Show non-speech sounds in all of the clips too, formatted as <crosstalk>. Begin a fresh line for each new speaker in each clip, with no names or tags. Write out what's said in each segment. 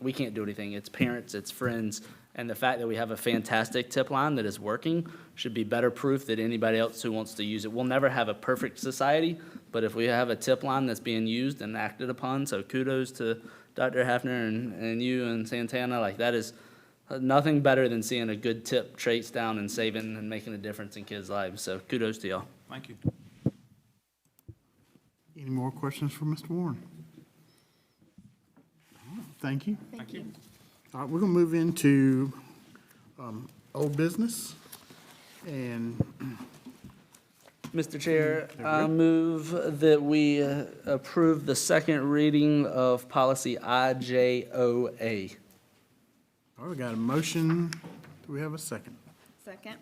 we can't do anything. It's parents, it's friends, and the fact that we have a fantastic tip line that is working should be better proof that anybody else who wants to use it. We'll never have a perfect society, but if we have a tip line that's being used and acted upon, so kudos to Dr. Hafner and, and you and Santana, like that is uh, nothing better than seeing a good tip trace down and saving and making a difference in kids' lives. So kudos to y'all.
Thank you.
Any more questions for Mr. Warren? Thank you.
Thank you.
All right, we're going to move into um, old business. And <clears throat>
Mr. Chair, Mm, I move that we uh, approve the second reading of policy IJOA.
all right, we got a motion. Do we have a second?
Second.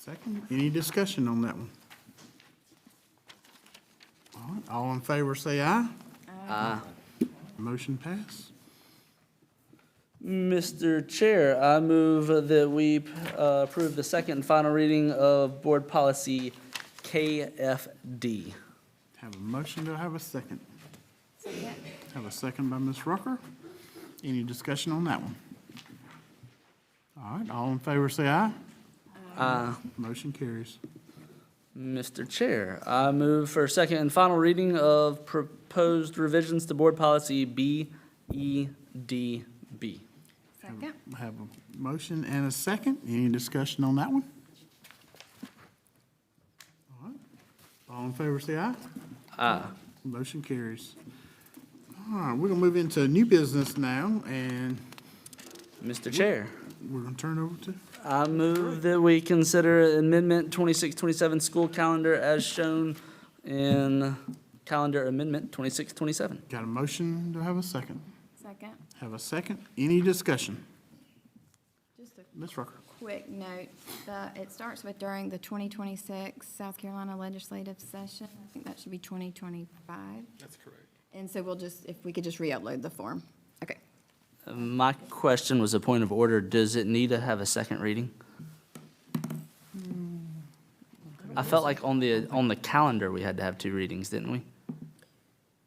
Second, any discussion on that one? All right, all in favor, say aye.
Aye.
Motion pass.
Mr. Chair, I move that we uh, approve the second and final reading of board policy KFD.
Have a motion, do I have a second?
Second.
Have a second by Ms. Rucker. Any discussion on that one? All right, all in favor, say aye.
Aye.
Motion carries.
Mr. Chair, I move for second and final reading of proposed revisions to board policy E BEDB.
Second.
I Have a motion and a second. Any discussion on that one? All right. All in favor, say aye.
Aye.
Motion carries. All right, we're gonna move into new business now, and
Mr. Chair.
we're gonna turn over to,
I move that we consider amendment twenty-six, twenty-seven school calendar as shown in calendar amendment twenty-six, twenty-seven.
got a motion, to have a second?
Second.
Have a second. Any discussion?
Just a
Ms. Rucker?
quick note, the, it starts with during the 2026 South Carolina legislative session. I think that should be 2025.
That's correct.
And so we'll just, if we could just re-upload the form. Okay.
My question was a point of order. Does it need to have a second reading? I felt like on the, on the calendar, we had to have two readings, didn't we?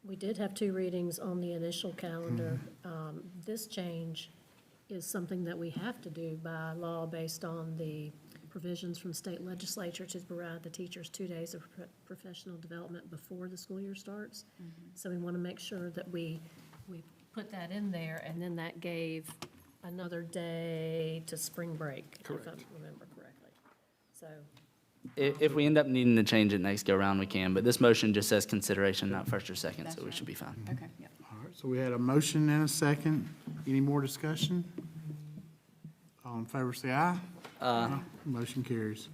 We did have two readings on the initial calendar. Um, This change is something that we have to do by law based on the provisions from state legislature to provide the teachers two days of pro- professional development before the school year starts. So we want to make sure that we, we put that in there, and then that gave another day to spring break, if I
Correct.
remember correctly. So,
If, if we end up needing to change it next go-round, we can, but this motion just says consideration, not first or second, so we should be fine.
Okay, yep.
All right, so we had a motion and a second. Any more discussion? All in favor, say aye. Aye. Motion carries.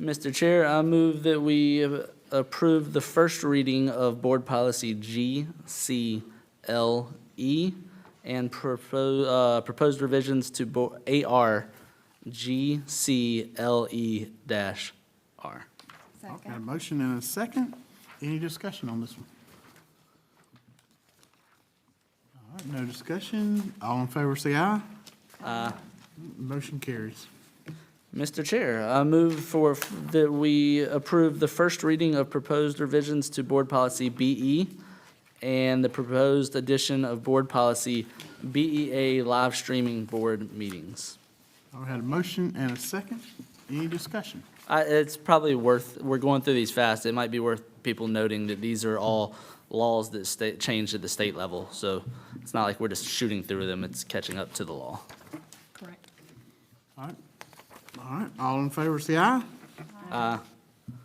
Mr. Chair, I move that we approve the first reading of Board Policy GCLE E and propose, uh, proposed revisions to Bo- AR GCLE E dash R.
Got a
Second.
motion and a second. Any discussion on this one? All right, no discussion. All in favor, say aye.
Uh,
Motion carries.
Mr. Chair, I move for, f- that we approve the first reading of proposed revisions to Board Policy BE and the proposed addition of Board Policy BEA live streaming board meetings.
I had a motion and a second. Any discussion?
I, it's probably worth, we're going through these fast, it might be worth people noting that these are all laws that state, changed at the state level, so it's not like we're just shooting through them, it's catching up to the law.
correct.
All right, all right, all in favor, say aye.
Uh,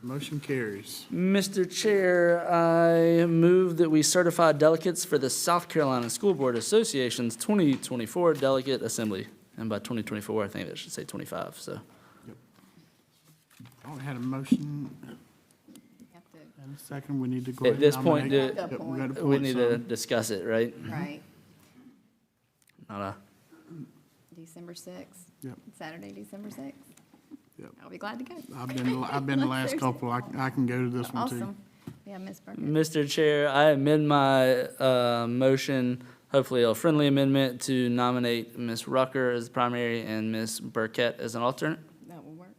Motion carries.
Mr. Chair, I move that we certify delegates for the South Carolina School Board Association's twenty twenty-four delegate assembly. And by twenty twenty-four, I think it should say twenty-five, so.
I had a motion
You have to-
and a second. We need to go
At
ahead and
this point,
nominate-
do-
Yep, we gotta
We
appoint
need to
some.
discuss it, right?
Right,
Not a-
December 6th.
Yep.
Saturday, December 6th.
Yep.
I'll be glad to go.
I've been, I've been the last couple. I, I can go to this one too.
Awesome. Yeah, Ms. Burkett.
Mr. Chair, I amend my uh, motion, hopefully a friendly amendment, to nominate Ms. Rucker as primary and Ms. Burkett as an alternate.
That will work.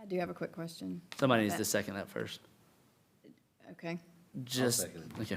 I do have a quick question.
Somebody needs
Okay.
to second that first.
Okay.
Just, okay.